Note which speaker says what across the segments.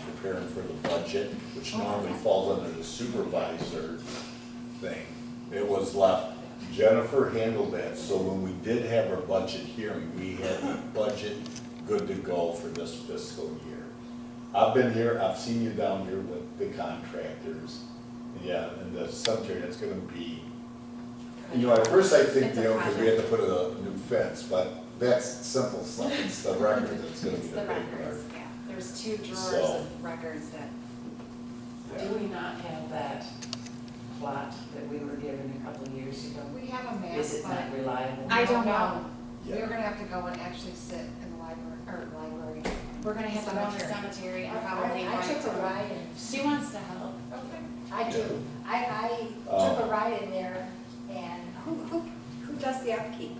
Speaker 1: preparing for the budget, which normally falls under the supervisor thing. It was left, Jennifer handled that, so when we did have our budget hearing, we had the budget good to go for this fiscal year. I've been here, I've seen you down here with the contractors, yeah, and the cemetery, that's gonna be you know, at first I think,
Speaker 2: It's
Speaker 1: you
Speaker 2: a
Speaker 1: know, because we had to
Speaker 2: project.
Speaker 1: put a new fence, but that's simple stuff, it's the record that's gonna be
Speaker 2: It's
Speaker 1: the
Speaker 2: the
Speaker 1: big part.
Speaker 2: records, yeah. There's two drawers
Speaker 1: So-
Speaker 2: of records that,
Speaker 1: Yeah.
Speaker 3: Do we not have that plot that we were given a couple of years ago?
Speaker 4: We have a map,
Speaker 3: Is it not
Speaker 4: but
Speaker 3: reliable?
Speaker 4: I don't know.
Speaker 1: Yeah.
Speaker 4: We're gonna have to go and actually sit in the library, or library.
Speaker 2: we're gonna have to go to the
Speaker 4: Cemetery.
Speaker 2: cemetery and probably
Speaker 5: I I took a
Speaker 2: find.
Speaker 5: ride in,
Speaker 2: She wants to help.
Speaker 5: I do, I, I took a ride in there and who, who, who does the upkeep?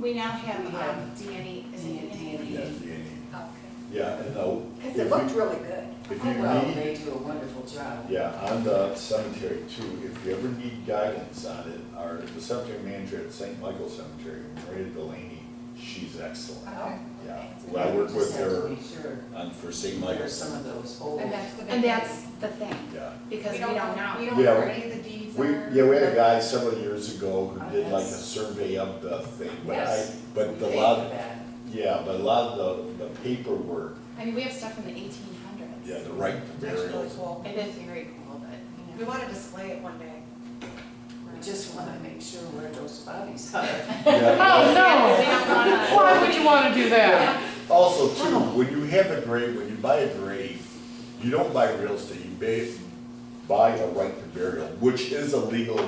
Speaker 2: We now have,
Speaker 3: We have-
Speaker 2: um, DNA, is it
Speaker 3: DNA?
Speaker 2: DNA?
Speaker 1: Yeah, DNA.
Speaker 5: Okay.
Speaker 1: Yeah, and uh,
Speaker 5: Because it looked
Speaker 1: if you,
Speaker 5: really good.
Speaker 1: if
Speaker 3: Well,
Speaker 1: you need,
Speaker 3: they do a wonderful job.
Speaker 1: yeah, on the cemetery too, if you ever need guidance on it, our, the cemetery manager at St. Michael Cemetery, Maria Delaney, she's excellent.
Speaker 4: Okay.
Speaker 1: Yeah, well, I work with
Speaker 3: Just have to
Speaker 1: her
Speaker 3: make sure
Speaker 1: on for St.
Speaker 3: there are
Speaker 1: Michael's,
Speaker 3: some of those old.
Speaker 4: Oh. And that's the big.
Speaker 2: And that's the thing,
Speaker 1: yeah.
Speaker 2: because we don't
Speaker 4: We
Speaker 2: know.
Speaker 4: don't know
Speaker 1: Yeah,
Speaker 4: where
Speaker 1: we-
Speaker 4: any of the deeds are.
Speaker 1: We, yeah, we had a guy several years ago who did like a
Speaker 3: Yes.
Speaker 1: survey of the thing, but I,
Speaker 3: Yes.
Speaker 1: but the
Speaker 3: Thank
Speaker 1: lot,
Speaker 3: you, Ben.
Speaker 1: Yeah, but a lot of the, the paperwork,
Speaker 2: I mean, we have stuff from the eighteen hundreds.
Speaker 1: yeah, the right to
Speaker 4: That's really
Speaker 1: burial.
Speaker 4: cool.
Speaker 2: It is very cool, but,
Speaker 4: We
Speaker 2: you know.
Speaker 4: wanna display it one day.
Speaker 3: We just want to make sure where those bodies are.
Speaker 1: Yeah.
Speaker 6: Oh,
Speaker 2: We
Speaker 6: no.
Speaker 2: don't wanna-
Speaker 6: Why would you want to do that?
Speaker 1: Also too, when you have a grave, when you buy a grave, you don't buy real estate, you ba- buy a right to burial, which is a legal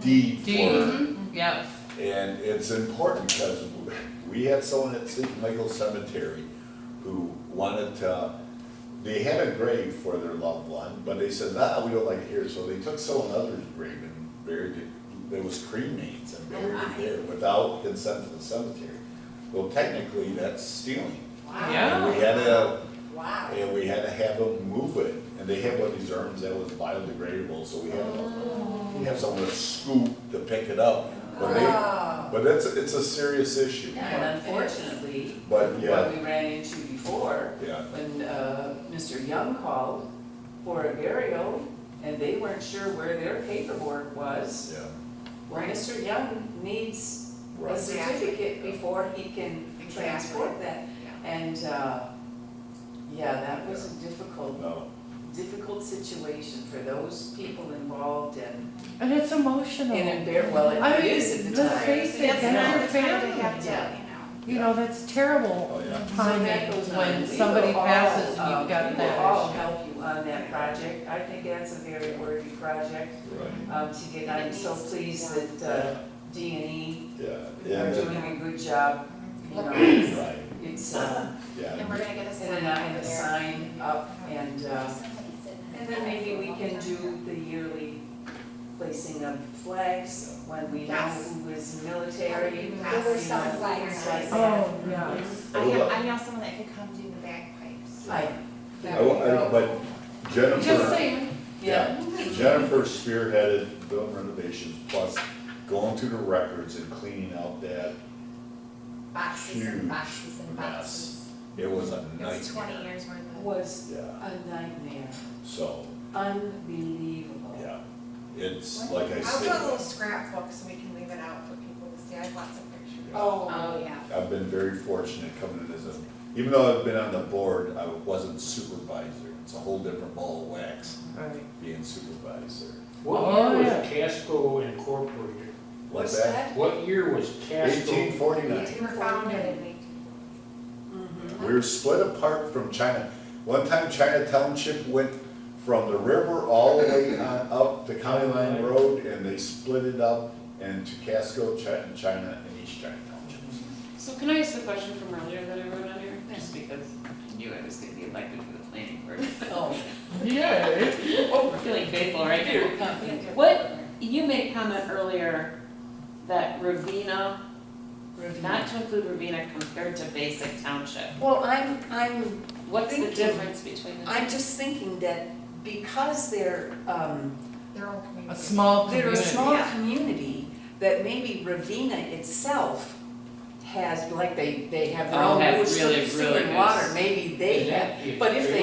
Speaker 1: deed for.
Speaker 6: Deed. Yes.
Speaker 1: And it's important because we had someone at St. Michael Cemetery who wanted to, they had a grave for their loved one, but they said, nah, we don't like it here, so they took someone else's grave and buried it. There was cremains and buried it there without consent of the cemetery. Well, technically, that's stealing.
Speaker 5: Wow.
Speaker 6: Yeah.
Speaker 1: And we had to,
Speaker 5: Wow.
Speaker 1: and we had to have them move it, and they had one of these urns that was biodegradable, so we had to, we have someone to scoop to pick it up. But they,
Speaker 5: Oh,
Speaker 1: but it's, it's a serious issue.
Speaker 3: And unfortunately,
Speaker 1: But, yeah.
Speaker 3: what we ran into before
Speaker 1: Yeah,
Speaker 3: when uh, Mr. Young called for a burial, and they weren't sure where their paperwork was,
Speaker 1: yeah,
Speaker 3: well, Mr. Young needs a
Speaker 1: right.
Speaker 3: certificate before he can transport that. And, uh, yeah, that was a difficult,
Speaker 1: Oh, No,
Speaker 3: difficult situation for those people involved and,
Speaker 6: And it's emotional.
Speaker 3: and embar, well,
Speaker 6: I
Speaker 3: it
Speaker 6: mean,
Speaker 3: is at the
Speaker 6: let's
Speaker 3: time.
Speaker 6: face it,
Speaker 4: That's
Speaker 6: that's
Speaker 4: not
Speaker 6: your
Speaker 4: the time they
Speaker 6: family.
Speaker 4: have to,
Speaker 3: Yeah.
Speaker 4: you know.
Speaker 6: You know, that's terrible
Speaker 1: Oh, yeah.
Speaker 3: So that
Speaker 6: timing
Speaker 3: goes on. We
Speaker 6: when
Speaker 3: will
Speaker 6: somebody
Speaker 3: all,
Speaker 6: passes and
Speaker 3: um,
Speaker 6: you've got
Speaker 3: We will all
Speaker 6: that
Speaker 3: help you on that project. I think that's a very worthy project
Speaker 1: right,
Speaker 3: um, to get, I'm so pleased that uh, D and E
Speaker 1: yeah,
Speaker 3: are
Speaker 1: yeah,
Speaker 3: doing
Speaker 1: that-
Speaker 3: a good job. You know,
Speaker 1: right,
Speaker 3: it's, uh,
Speaker 2: And
Speaker 1: yeah,
Speaker 2: we're gonna get a sign
Speaker 3: and then I
Speaker 2: over
Speaker 3: have a
Speaker 2: there.
Speaker 3: sign up and, uh,
Speaker 5: somebody said that.
Speaker 3: and then maybe we can do the yearly placing of flags when we know
Speaker 4: Yes.
Speaker 3: who is military.
Speaker 5: There were some flags.
Speaker 3: Flags.
Speaker 6: Oh, yeah.
Speaker 2: I know, I know someone that could come do the bagpipes.
Speaker 3: I,
Speaker 1: I, I, but
Speaker 6: Just
Speaker 1: Jennifer,
Speaker 6: saying.
Speaker 3: yeah.
Speaker 1: yeah, Jennifer spearheaded building renovations, plus going through the records and cleaning out that,
Speaker 5: Boxes
Speaker 1: Huge
Speaker 5: and boxes and
Speaker 1: mess.
Speaker 5: boxes.
Speaker 1: it was a
Speaker 2: It was twenty
Speaker 1: nightmare.
Speaker 2: years worth
Speaker 3: was
Speaker 1: Yeah,
Speaker 3: a nightmare,
Speaker 1: so,
Speaker 3: unbelievable.
Speaker 1: yeah, it's like I
Speaker 4: I'll do a little
Speaker 1: said,
Speaker 4: scrapbook so we can leave it out for people to see. I have lots of pictures.
Speaker 2: of,
Speaker 3: Oh,
Speaker 2: oh, yeah.
Speaker 1: I've been very fortunate coming in as a, even though I've been on the board, I wasn't supervisor, it's a whole different ball of wax
Speaker 3: right.
Speaker 1: being supervisor.
Speaker 7: What
Speaker 6: Oh,
Speaker 7: year was
Speaker 6: yeah.
Speaker 7: Casco incorporated?
Speaker 1: What's
Speaker 3: What's that?
Speaker 7: What year was Casco?
Speaker 1: Eighteen forty-nine.
Speaker 4: We were founded in eighteen.
Speaker 3: Mhm.
Speaker 1: We were split apart from China. One time China Township went from the river all the way on up the county line road and they split it up into Casco, China, China and East China Townships.
Speaker 8: So can I ask the question from earlier that I wrote on here? Just because I knew I was gonna be elected for the planning board.
Speaker 3: Oh,
Speaker 6: Yay.
Speaker 8: Oh, we're feeling faithful right here. What, you made a comment earlier that Ravina, not to include Ravina compared to Basic Township.
Speaker 3: Well, I'm, I'm,
Speaker 8: What's the
Speaker 3: Thank you.
Speaker 8: difference between the two?
Speaker 3: I'm just thinking that because they're, um,
Speaker 4: Their own
Speaker 6: A
Speaker 4: community.
Speaker 6: small
Speaker 3: they're
Speaker 6: community.
Speaker 3: a small community, that maybe Ravina itself has, like, they, they have their
Speaker 8: Oh,
Speaker 3: own
Speaker 8: have
Speaker 3: wood,
Speaker 8: really,
Speaker 3: sewer
Speaker 8: really
Speaker 3: and
Speaker 8: good-
Speaker 3: water, maybe they
Speaker 7: Is that-
Speaker 3: have, but if they